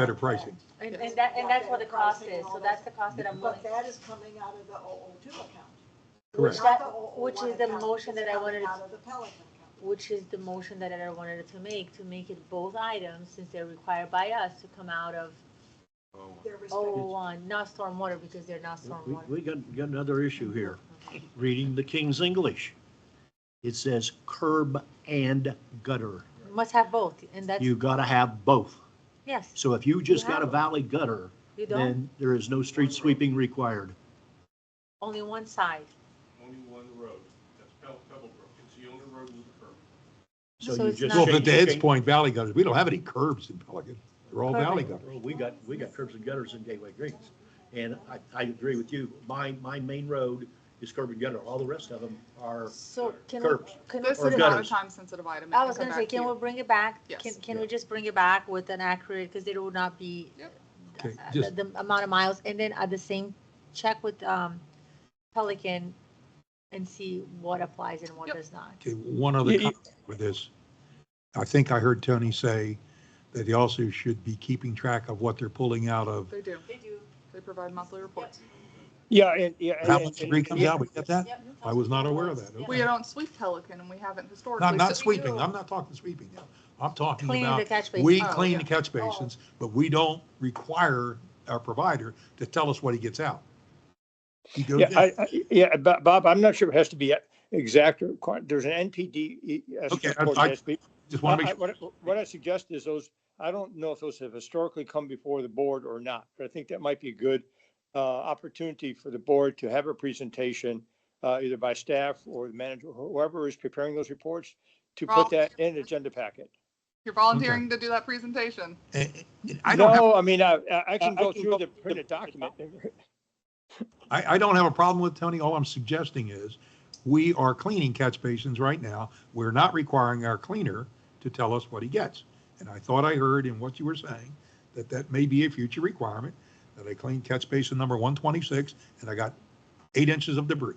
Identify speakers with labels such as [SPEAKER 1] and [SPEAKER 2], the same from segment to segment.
[SPEAKER 1] better pricing.
[SPEAKER 2] And, and that, and that's what the cost is, so that's the cost that I'm willing.
[SPEAKER 3] But that is coming out of the 002 account.
[SPEAKER 1] Correct.
[SPEAKER 3] not the
[SPEAKER 2] That-
[SPEAKER 3] 001
[SPEAKER 2] which is the
[SPEAKER 3] account.
[SPEAKER 2] motion
[SPEAKER 3] It's
[SPEAKER 2] that I
[SPEAKER 3] coming
[SPEAKER 2] wanted to-
[SPEAKER 3] Out of the Pelican account.
[SPEAKER 2] Which is the motion that I wanted to make, to make it both items, since they're required by us to come out of Oh.
[SPEAKER 3] They're restricted.
[SPEAKER 2] 001, not stormwater, because they're not
[SPEAKER 4] We,
[SPEAKER 2] stormwater.
[SPEAKER 4] we got, got another issue here, reading the King's English. It says curb and gutter.
[SPEAKER 2] Must have both, and that's,
[SPEAKER 4] You gotta have both.
[SPEAKER 2] yes,
[SPEAKER 4] So if you just
[SPEAKER 2] You
[SPEAKER 4] got a
[SPEAKER 2] have-
[SPEAKER 4] valley gutter,
[SPEAKER 2] you don't,
[SPEAKER 4] then there is no street sweeping required.
[SPEAKER 2] only one side.
[SPEAKER 5] only one road, that's Pebble, Pebblebrook, it's the only road with a curb.
[SPEAKER 4] So
[SPEAKER 2] So
[SPEAKER 4] you
[SPEAKER 2] it's
[SPEAKER 4] just.
[SPEAKER 2] not-
[SPEAKER 1] Well,
[SPEAKER 2] Well,
[SPEAKER 1] but
[SPEAKER 4] change-
[SPEAKER 1] to Ed's point, valley gutters, we don't have any curbs in Pelican. They're all valley
[SPEAKER 2] Perfect.
[SPEAKER 1] gutters.
[SPEAKER 4] Well, we got, we got curbs and gutters in Gateway Greens. And I, I agree with you. My, my main road is curb and gutter. All the rest of them are,
[SPEAKER 2] So can we,
[SPEAKER 4] Curbs.
[SPEAKER 2] can we
[SPEAKER 6] This
[SPEAKER 2] put
[SPEAKER 4] Or
[SPEAKER 6] is
[SPEAKER 2] it
[SPEAKER 6] not a
[SPEAKER 4] gutters.
[SPEAKER 6] time-sensitive item. It
[SPEAKER 2] I was
[SPEAKER 6] come
[SPEAKER 2] gonna say,
[SPEAKER 6] back to
[SPEAKER 2] can
[SPEAKER 6] you.
[SPEAKER 2] we bring it back?
[SPEAKER 6] Yes.
[SPEAKER 2] Can, can we just bring it back with an accurate, because it would not be
[SPEAKER 6] Yep.
[SPEAKER 1] Okay,
[SPEAKER 2] uh,
[SPEAKER 1] just-
[SPEAKER 2] the the amount of miles, and then at the same, check with um Pelican and see what applies and what
[SPEAKER 6] Yep.
[SPEAKER 2] does not.
[SPEAKER 1] Okay, one other comment with this. I think I heard Tony say that he also should be keeping track of what they're pulling out of.
[SPEAKER 6] They do.
[SPEAKER 3] They do.
[SPEAKER 6] They provide monthly reports.
[SPEAKER 7] Yeah, and, yeah.
[SPEAKER 1] How
[SPEAKER 7] and-
[SPEAKER 1] much
[SPEAKER 7] and-
[SPEAKER 1] debris comes
[SPEAKER 7] yeah,
[SPEAKER 1] out? We get that? I was not aware of that.
[SPEAKER 6] We
[SPEAKER 1] Okay.
[SPEAKER 6] don't sweep Pelican, and we haven't historically.
[SPEAKER 1] Not, not
[SPEAKER 6] so-
[SPEAKER 1] sweeping. I'm not talking sweeping now. I'm talking
[SPEAKER 2] Cleaning the
[SPEAKER 1] about,
[SPEAKER 2] catch basin.
[SPEAKER 1] we
[SPEAKER 6] Oh,
[SPEAKER 1] clean
[SPEAKER 6] yeah.
[SPEAKER 1] the catch basins, but we don't require our provider to tell us what he gets out. He goes
[SPEAKER 7] Yeah,
[SPEAKER 1] in.
[SPEAKER 7] I, I- yeah, Bo- Bob, I'm not sure it has to be exact or, quite- there's an NPD.
[SPEAKER 1] Okay, I- I- Just want to make sure.
[SPEAKER 7] What I- what I suggest is those, I don't know if those have historically come before the board or not, but I think that might be a good uh, opportunity for the board to have a presentation, uh, either by staff or the manager, whoever is preparing those reports, to put
[SPEAKER 6] Ralph.
[SPEAKER 7] that in an agenda packet.
[SPEAKER 6] You're volunteering to do that presentation.
[SPEAKER 1] And- and eh, I don't have,
[SPEAKER 7] No, I mean, I, I- I can
[SPEAKER 8] I
[SPEAKER 7] go
[SPEAKER 8] can
[SPEAKER 7] through
[SPEAKER 8] go
[SPEAKER 7] the
[SPEAKER 8] through the
[SPEAKER 7] printed document.
[SPEAKER 1] I, I don't have a problem with Tony. All I'm suggesting is we are cleaning catch basins right now. We're not requiring our cleaner to tell us what he gets. And I thought I heard in what you were saying that that may be a future requirement, that I clean catch basin number 126 and I got eight inches of debris.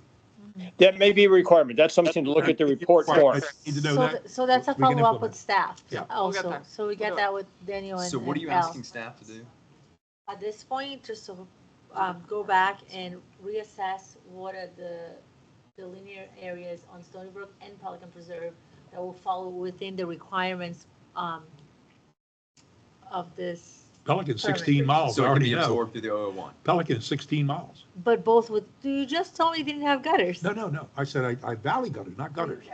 [SPEAKER 7] That may be a requirement. That's something to look at the report
[SPEAKER 1] I
[SPEAKER 7] for.
[SPEAKER 1] Need to know
[SPEAKER 2] So
[SPEAKER 1] that.
[SPEAKER 2] th- So that's a
[SPEAKER 1] We can
[SPEAKER 2] follow-up with
[SPEAKER 1] implement.
[SPEAKER 2] staff
[SPEAKER 1] Yeah. We'll
[SPEAKER 6] get
[SPEAKER 2] also,
[SPEAKER 6] there.
[SPEAKER 2] so we
[SPEAKER 6] We'll do
[SPEAKER 2] get
[SPEAKER 6] it.
[SPEAKER 2] that with Daniel and
[SPEAKER 8] So what are
[SPEAKER 2] and
[SPEAKER 8] you
[SPEAKER 2] Al.
[SPEAKER 8] asking staff to do?
[SPEAKER 2] At this point, just to, um, go back and reassess what are the, the linear areas on Stony Brook and Pelican Preserve that will fall within the requirements, um, of this,
[SPEAKER 1] Pelican's 16 miles, I
[SPEAKER 8] So it can
[SPEAKER 1] Oh, already
[SPEAKER 8] be
[SPEAKER 1] know.
[SPEAKER 8] absorbed through the 001.
[SPEAKER 1] Pelican's 16 miles.
[SPEAKER 2] but both with, you just told me you didn't have gutters.
[SPEAKER 1] No, no, no. I said I, I valley gutters, not gutters.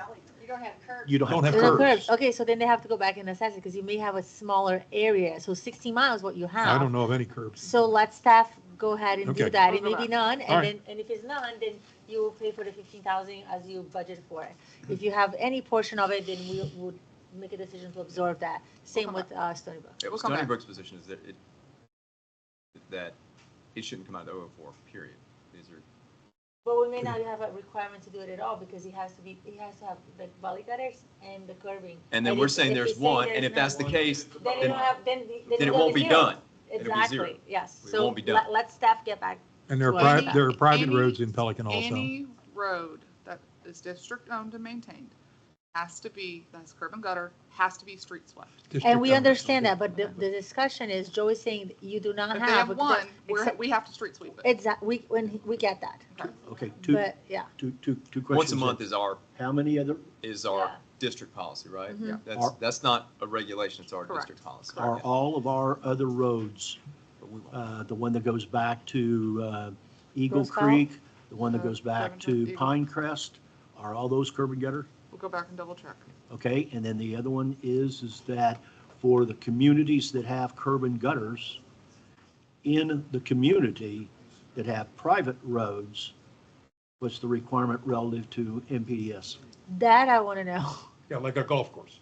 [SPEAKER 3] You don't have curbs.
[SPEAKER 4] you don't
[SPEAKER 1] Don't
[SPEAKER 4] have
[SPEAKER 1] have
[SPEAKER 2] No
[SPEAKER 4] curb.
[SPEAKER 1] curbs.
[SPEAKER 2] curbs. Okay, so then they have to go back and assess it, because you may have a smaller area, so sixty miles what you have.
[SPEAKER 1] I don't know of any curbs.
[SPEAKER 2] So let staff go ahead and
[SPEAKER 1] Okay.
[SPEAKER 2] do that. It
[SPEAKER 6] We'll
[SPEAKER 2] may
[SPEAKER 6] go
[SPEAKER 2] be none,
[SPEAKER 1] All
[SPEAKER 2] and
[SPEAKER 1] right.
[SPEAKER 2] then, and if it's none, then you will pay for the fifteen thousand as you budget for it. If you have any portion of it, then we would make a decision to absorb that. Same
[SPEAKER 6] come
[SPEAKER 2] with uh, Stony Brook.
[SPEAKER 8] It
[SPEAKER 6] We'll
[SPEAKER 8] was
[SPEAKER 6] come
[SPEAKER 8] Stony
[SPEAKER 6] back.
[SPEAKER 8] Brook's position is that it, that it shouldn't come out of 004, period. These are,
[SPEAKER 2] But we may not have a requirement to do it at all, because it has to be, it has to have the gully gutters and the curbing.
[SPEAKER 8] and then we're
[SPEAKER 2] if-
[SPEAKER 8] saying
[SPEAKER 2] if we
[SPEAKER 8] there's
[SPEAKER 2] say
[SPEAKER 8] one,
[SPEAKER 2] there's
[SPEAKER 8] and if
[SPEAKER 2] none,
[SPEAKER 8] that's the case,
[SPEAKER 2] Then you
[SPEAKER 8] then-
[SPEAKER 2] don't have, then. the-
[SPEAKER 8] then it
[SPEAKER 2] it'll
[SPEAKER 8] won't be
[SPEAKER 2] zero.
[SPEAKER 8] done. It'll be zero.
[SPEAKER 2] Exactly, yes.
[SPEAKER 8] It
[SPEAKER 2] So
[SPEAKER 8] won't be done.
[SPEAKER 2] let- Let staff get back.
[SPEAKER 1] And there are,
[SPEAKER 2] Well,
[SPEAKER 1] pri-
[SPEAKER 2] any-
[SPEAKER 1] there are private
[SPEAKER 6] any-
[SPEAKER 1] roads in Pelican also.
[SPEAKER 6] Any road that is district-owned and maintained has to be, that's curb and gutter, has to be street swept.
[SPEAKER 2] And we
[SPEAKER 1] District-owned.
[SPEAKER 2] understand that, but the, the discussion is, Joe is saying you do not
[SPEAKER 6] If
[SPEAKER 2] have.
[SPEAKER 6] they have
[SPEAKER 2] because
[SPEAKER 6] one,
[SPEAKER 2] that-
[SPEAKER 6] we're,
[SPEAKER 2] except-
[SPEAKER 6] we have to street sweep it.
[SPEAKER 2] Exactly, we, when, he- we get that,
[SPEAKER 6] Okay.
[SPEAKER 4] Okay, two,
[SPEAKER 2] but, yeah.
[SPEAKER 4] two, two, two questions.
[SPEAKER 8] once a month is our,
[SPEAKER 4] How many other,
[SPEAKER 8] is our
[SPEAKER 2] Yeah.
[SPEAKER 8] district policy, right?
[SPEAKER 2] Mhm. Yeah.
[SPEAKER 8] That's,
[SPEAKER 4] Are-
[SPEAKER 8] that's not a regulation, it's our
[SPEAKER 6] Correct.
[SPEAKER 8] district policy.
[SPEAKER 4] are
[SPEAKER 8] Yeah.
[SPEAKER 4] all of our other roads,
[SPEAKER 8] But we won't.
[SPEAKER 4] uh, the one that goes back to uh, Eagle
[SPEAKER 2] Rose Valley?
[SPEAKER 4] Creek, the one that
[SPEAKER 6] Uh,
[SPEAKER 4] goes back
[SPEAKER 6] Seven
[SPEAKER 4] to
[SPEAKER 6] Hundred Eagle.
[SPEAKER 4] Pine Crest, are all those curb and gutter?
[SPEAKER 6] We'll go back and double check.
[SPEAKER 4] Okay, and then the other one is, is that for the communities that have curb and gutters in the community that have private roads, what's the requirement relative to MPDS?
[SPEAKER 2] That I want to know.
[SPEAKER 1] Yeah, like a golf course.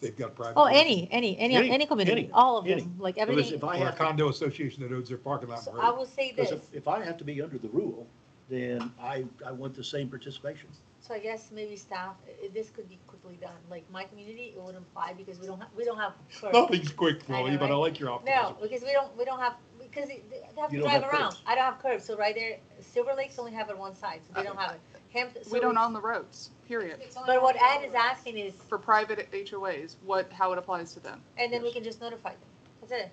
[SPEAKER 1] They've got private.
[SPEAKER 2] Oh,
[SPEAKER 1] roads.
[SPEAKER 2] any, any, any,
[SPEAKER 4] Any,
[SPEAKER 2] any community,
[SPEAKER 4] any,
[SPEAKER 2] all of
[SPEAKER 4] any.
[SPEAKER 2] them, like
[SPEAKER 4] Because
[SPEAKER 2] everything.
[SPEAKER 4] if I
[SPEAKER 1] Or a
[SPEAKER 4] have,
[SPEAKER 1] condo association that owns their parking lot.
[SPEAKER 2] So
[SPEAKER 1] and
[SPEAKER 2] I
[SPEAKER 1] road.
[SPEAKER 2] will say
[SPEAKER 4] because
[SPEAKER 2] this,
[SPEAKER 4] if, if I have to be under the rule, then I, I want the same participation.
[SPEAKER 2] so I guess maybe staff, i- this could be quickly done, like my community, it would imply, because we don't, have we don't have. curb.
[SPEAKER 1] Nothing's quick,
[SPEAKER 2] I know,
[SPEAKER 1] Willie, but I
[SPEAKER 2] right?
[SPEAKER 1] like your
[SPEAKER 2] No,
[SPEAKER 1] optimism.
[SPEAKER 2] because we don't, we don't have, because it- they have to
[SPEAKER 4] You don't
[SPEAKER 2] drive
[SPEAKER 4] have
[SPEAKER 2] around,
[SPEAKER 4] curbs.
[SPEAKER 2] I don't have curbs, so right there, Silver Lakes only have it one side, so they don't have it. Hampton-
[SPEAKER 6] We
[SPEAKER 2] so-
[SPEAKER 6] don't own the roads, period.
[SPEAKER 2] But what Ed is asking is,
[SPEAKER 6] For private HOAs, what, how it applies to them.
[SPEAKER 2] and then we can just notify them, that's it.